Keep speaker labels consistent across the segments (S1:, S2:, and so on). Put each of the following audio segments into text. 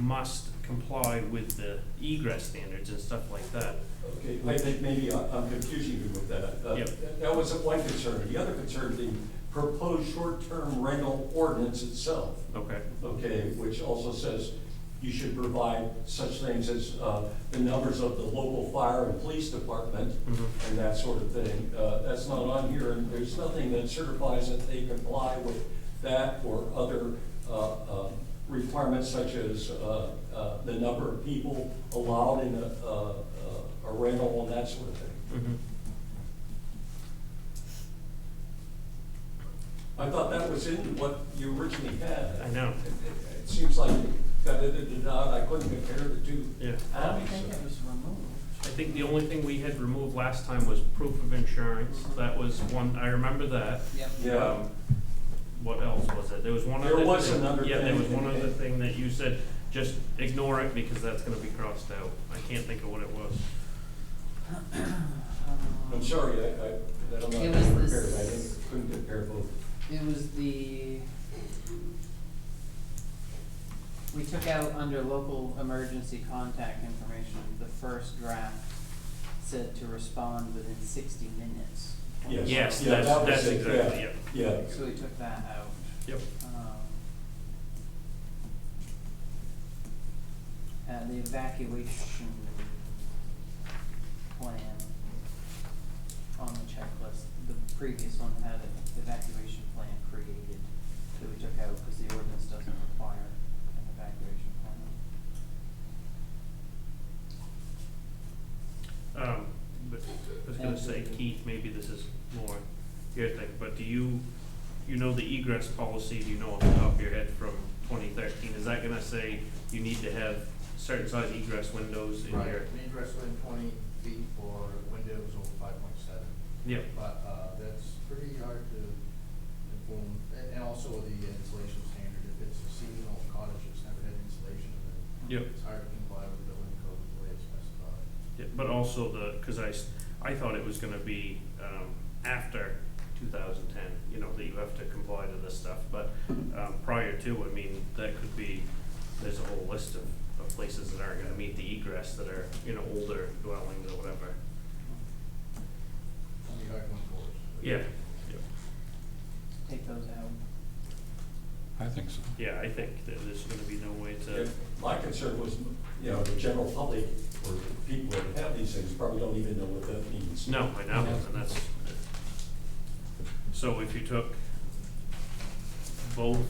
S1: must comply with the egress standards and stuff like that.
S2: Okay, I think maybe I- I'm confusing you with that. Uh,
S1: Yep.
S2: That was one concern. The other concern, the proposed short-term rental ordinance itself,
S1: Okay,
S2: okay, which also says you should provide such things as uh, the numbers of the local fire and police department
S1: Mhm.
S2: and that sort of thing. Uh, That's not on here, and there's nothing that certifies that they comply with that or other uh, um, requirements such as uh, uh, the number of people allowed in a- a a rental and that sort of thing.
S1: mhm.
S2: I thought that was in what you originally had.
S1: I know.
S2: It- It it seems like you got edited out, I couldn't compare the two.
S1: Yeah.
S2: Um,
S3: I don't think it was removed.
S1: I think the only thing we had removed last time was proof of insurance. That was one, I remember that.
S3: Yep.
S2: Yeah,
S1: Um, What else was it? There was one other
S2: There
S1: thing.
S2: was another
S1: Yeah, there
S2: thing.
S1: was one other thing that you said, just ignore it because that's gonna be crossed out. I can't think of what it was.
S3: Um,
S2: I'm sorry, I, I, I'm not
S3: It was
S2: prepared,
S3: this-
S2: I didn't, couldn't compare both.
S3: It was the, we took out under local emergency contact information, the first draft said to respond within sixty minutes.
S2: Yes.
S1: Yes,
S2: Yeah,
S1: that's,
S2: that was
S1: that's
S2: it,
S1: exactly,
S2: yeah.
S1: it.
S2: Yeah,
S3: So we took that out.
S1: Yep.
S3: Um, Uh, the evacuation plan on the checklist, the previous one had an evacuation plan created that we took out because the ordinance doesn't require an evacuation plan.
S1: Um, but I was gonna say, Keith, maybe this is more your thing, but do you, you know the egress policy, do you know off the top of your head from twenty thirteen? Is that gonna say you need to have certain size egress windows in
S4: Right,
S1: your?
S4: an egress within twenty feet for windows over five point seven,
S1: Yep,
S4: but, uh, that's pretty hard to inform, and, and also the insulation standard, if it's a seasonal cottage that's never had insulation, then
S1: yep.
S4: it's hard to comply with building code the way it's specified.
S1: Yeah, But also the, because I, s- I thought it was gonna be, um, after two thousand ten, you know, that you have to comply to this stuff, but, um, prior to, I mean, that could be, there's a whole list of, of places that aren't gonna meet the egress that are, you know, older dwellings or whatever.
S4: It'll be hard to enforce.
S1: Yeah,
S3: Take those out.
S5: I think so.
S1: yeah, I think that there's gonna be no way to,
S2: If- my concern was, you know, the general public or the people that have these things probably don't even know what that means.
S1: no, I know, and that's. So if you took both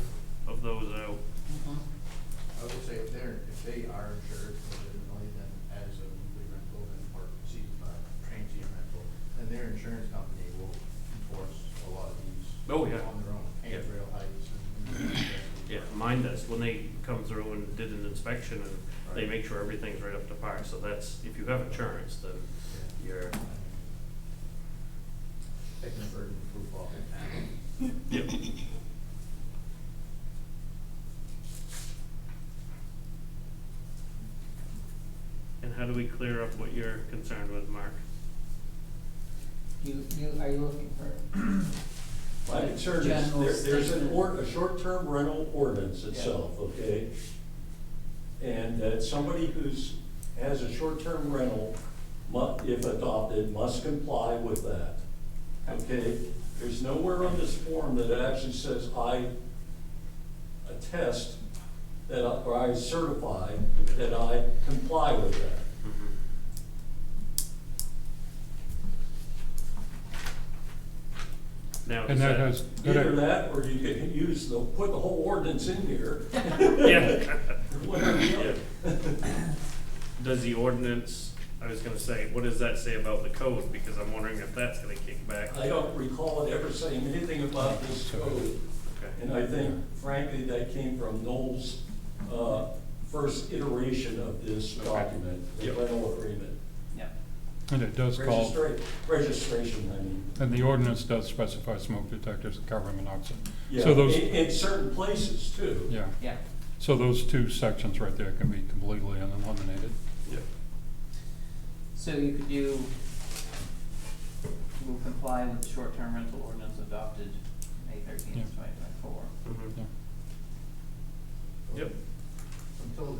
S1: of those out,
S3: Mm-hmm.
S4: I would say if they're, if they are insured legitimately, then as a weekly rental and or season, uh, transient rental, then their insurance company will enforce a lot of these.
S1: Oh, yeah.
S4: On their own,
S1: Yeah.
S4: handrail heights and.
S1: yeah, mine does, when they come through and did an inspection and they
S4: Right.
S1: make sure everything's right up to par, so that's, if you have insurance, then
S4: Yeah.
S1: you're,
S4: I mean, Taking the burden of proof off.
S1: yep. And how do we clear up what you're concerned with, Mark?
S3: You, you, are you looking for?
S2: My concern is,
S3: General
S2: there- there's an
S3: statement.
S2: ord, a short-term rental ordinance
S3: Yeah.
S2: itself, okay? And that somebody who's, has a short-term rental, mu, if adopted, must comply with that, okay? There's nowhere on this form that actually says I attest that, I- or I certify that I comply with that.
S1: Mm-hmm. Now, does
S5: And that has,
S2: Either
S5: that,
S2: that, or you could use the, put the whole ordinance in here.
S1: Yeah.
S2: One or the other.
S1: Does the ordinance, I was gonna say, what does that say about the code, because I'm wondering if that's gonna kick back.
S2: I don't recall it ever saying anything about this code,
S1: Okay,
S2: and I think frankly, that came from Noel's, uh, first iteration of this
S1: Okay.
S2: document, the
S1: Yep.
S2: rental agreement.
S3: Yep.
S5: and it does call,
S2: Registra- registration, I mean.
S5: and the ordinance does specify smoke detectors and carbon monoxide.
S2: Yeah,
S5: So those,
S2: In, in certain places too.
S5: yeah,
S3: Yeah.
S5: so those two sections right there can be completely eliminated.
S1: yeah,
S3: So you could do, will comply with the short-term rental ordinance adopted May thirteenth,
S5: Yeah.
S1: Mm-hmm.
S3: twenty twenty-four.
S1: mhm,
S5: Yeah.
S1: yep.
S4: Until the